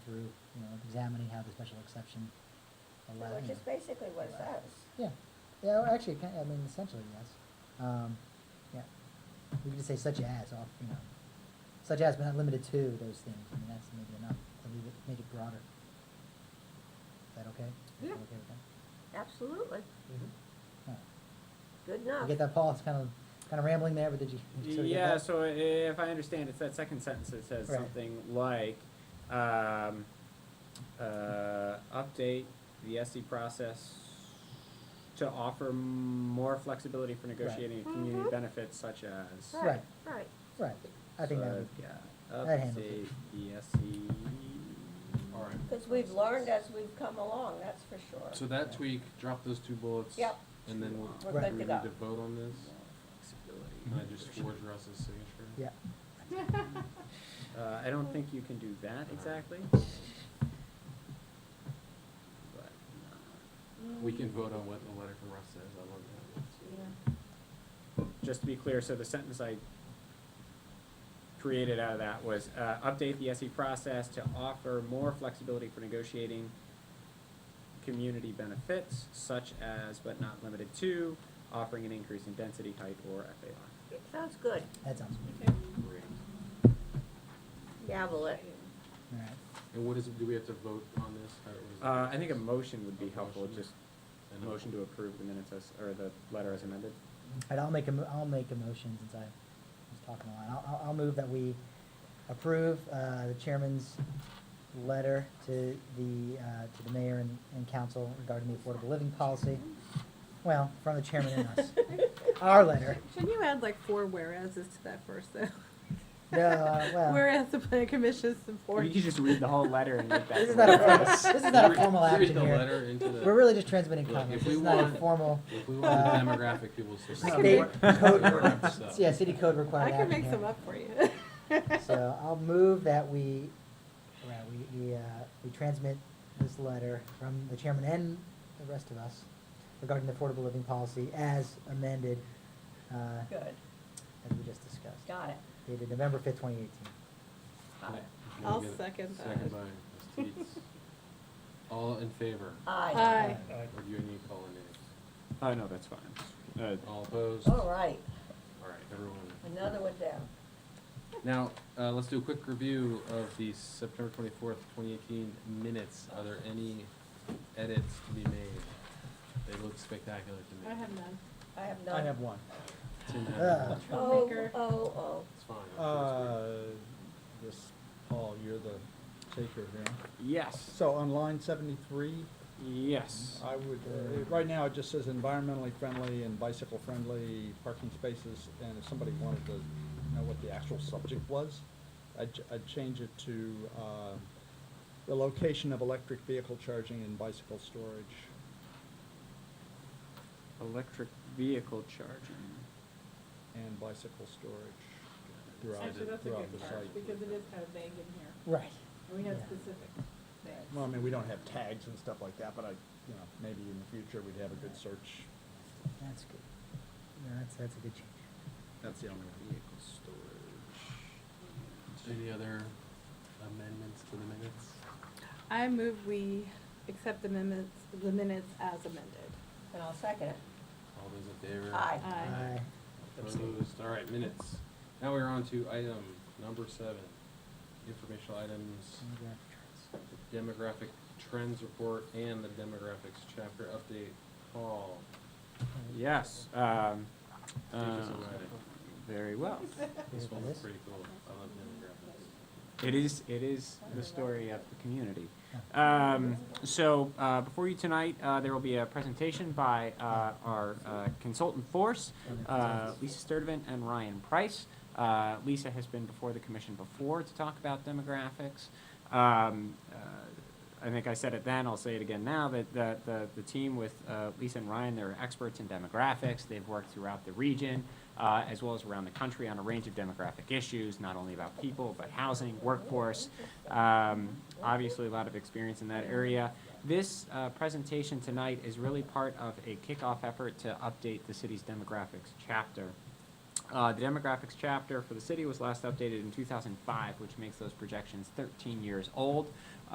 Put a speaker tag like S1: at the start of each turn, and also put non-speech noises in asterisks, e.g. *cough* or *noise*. S1: through, you know, examining how the special exception allows.
S2: Which is basically what it
S1: Right.
S2: says.
S1: Yeah, yeah, well, actually, kind I mean, essentially, yes. Um, yeah, we could just say such as, off, you know, such as, but not limited to those things, I mean, that's maybe enough, to leave it, make it broader. Is that okay?
S2: Yeah.
S1: Okay with that?
S2: Absolutely, All right. good
S1: You
S2: enough.
S1: get that, Paul, it's kind of, kind of rambling there, but did you? did you sort of get
S3: Yeah,
S1: that?
S3: so i- if I understand, it's that second sentence that says
S1: Right.
S3: something like, um, uh, update the SE process to offer m- more flexibility for negotiating community
S2: Mhm.
S3: benefits such as.
S2: Right, right.
S1: Right, I think that would,
S3: So, yeah,
S1: that handles
S3: update
S1: it.
S3: the E SE.
S4: All right.
S2: Because we've learned as we've come along, that's for
S4: So
S2: sure.
S4: that tweak, drop those two bullets.
S2: Yep.
S4: And then we'll,
S2: We're
S4: do
S2: good
S4: we
S2: to
S4: need
S2: go.
S4: to vote on this?
S3: Flexibility.
S4: Can I just forge Russ's signature?
S1: yeah,
S3: Uh, I don't think you can do that exactly. But, uh,
S4: We can vote on what the letter from Russ says, I love that.
S3: just to be clear, so the sentence I created out of that was, uh, update the SE process to offer more flexibility for negotiating community benefits such as, but not limited to, offering an increase in density, height, or FAR.
S2: It sounds good.
S1: that sounds good,
S4: Great.
S2: Gavel it.
S1: all right.
S4: And what is, do we have to vote on this? How- what is it?
S3: Uh, I think a motion would be helpful,
S4: Motion.
S3: just
S4: And
S3: a
S4: a-
S3: motion to approve the minutes as, or the letter as amended.
S1: And I'll make a, mo- I'll make a motion since I was talking a lot. I'll- I'll, I'll move that we approve, uh, the chairman's letter to the, uh, to the mayor and, and council regarding the affordable living policy. Well, from the chairman and
S5: *laughs*
S1: us. Our letter.
S5: Shouldn't you add like four whereases to that first though?
S1: No,
S5: *laughs*
S1: uh, well,
S5: Whereas the planning commission supports.
S3: You could just read the whole letter and make that.
S1: this is not a,
S3: clear.
S1: formal- this is not a
S4: Read-
S1: formal
S4: Read
S1: action
S4: the
S1: here.
S4: letter into the.
S1: We're really just transmitting
S4: Look,
S1: comments.
S4: if
S1: This is
S4: we
S1: not a
S4: want-
S1: formal
S4: If we want the demographic, people will say.
S5: can
S1: state code,
S4: We're up to
S1: yeah, city code required
S5: I
S1: action
S5: can make
S1: here.
S5: some up for you.
S1: *laughs*
S5: *laughs*
S1: So I'll move that we, right, we, we, uh, we transmit this letter from the chairman and the rest of us regarding the affordable living policy as amended, uh,
S2: Good,
S1: as we just discussed.
S2: got it.
S1: Dated November fifth, twenty eighteen.
S2: Got it.
S5: I'll
S4: Can I get a
S5: second
S4: Second
S5: that.
S4: by Ms. Teets. All in favor?
S2: Aye.
S5: Aye.
S4: Or do you need to call a name?
S3: Oh, no, that's fine. Uh,
S4: All opposed?
S2: All Oh, right,
S4: All right, everyone.
S2: another one down.
S4: Now, uh, let's do a quick review of the September twenty-fourth, twenty eighteen minutes. Are there any edits to be made? They look spectacular to
S5: I
S4: me.
S5: have none.
S2: I have none.
S1: one.
S4: Tim had
S1: Uh,
S4: one.
S2: Oh,
S5: Troublemaker.
S2: oh, oh.
S4: It's fine. I'm sure
S6: Uh, This, Paul, you're the taker here.
S3: yes,
S6: So on line seventy-three,
S3: yes.
S6: I would, uh, it- right now, it just says environmentally friendly and bicycle-friendly parking spaces, and if somebody wanted to know what the actual subject was, I'd, ch- I'd change it to, uh, the location of electric vehicle charging and bicycle storage.
S3: Electric vehicle charging.
S6: and bicycle storage throughout,
S5: Actually, that's a
S6: throughout the
S5: good part,
S6: site.
S5: because it is kind of vague in here,
S1: Right.
S5: and we have
S1: Yeah.
S5: specific things.
S6: Well, I mean, we don't have tags and stuff like that, but I, you know, maybe in the future, we'd have a good search.
S1: That's good. No, that's, that's a good change.
S6: That's the only one.
S3: Vehicle storage.
S4: it's good. Any other amendments to the minutes?
S5: I move we accept the minutes, the minutes as amended.
S2: And I'll second it.
S4: All those in favor?
S2: Aye.
S5: Aye.
S4: Opposed, all right, minutes. Now we're on to item number seven, informational items, demographic trends report, and the demographics chapter update. Paul,
S3: Yes, um,
S4: Take us
S3: uh,
S4: away.
S3: very well.
S1: Here
S4: this
S1: it
S4: one's
S1: is.
S4: pretty cool, I love demographics.
S3: It is, it is the story of the community. Um, so, uh, before you tonight, uh, there will be a presentation by, uh, our uh, consultant force, uh, Lisa Sturdivant and Ryan Price. Uh, Lisa has been before the commission before to talk about demographics. Um, uh, I think I said it then, I'll say it again now, that, that the, the team with, uh, Lisa and Ryan, they're experts in demographics. They've worked throughout the region, uh, as well as around the country on a range of demographic issues, not only about people, but housing, workforce. Um, obviously, a lot of experience in that area. This uh, presentation tonight is really part of a kickoff effort to update the city's demographics chapter. Uh, the demographics chapter for the city was last updated in 2005, which makes those projections 13 years old.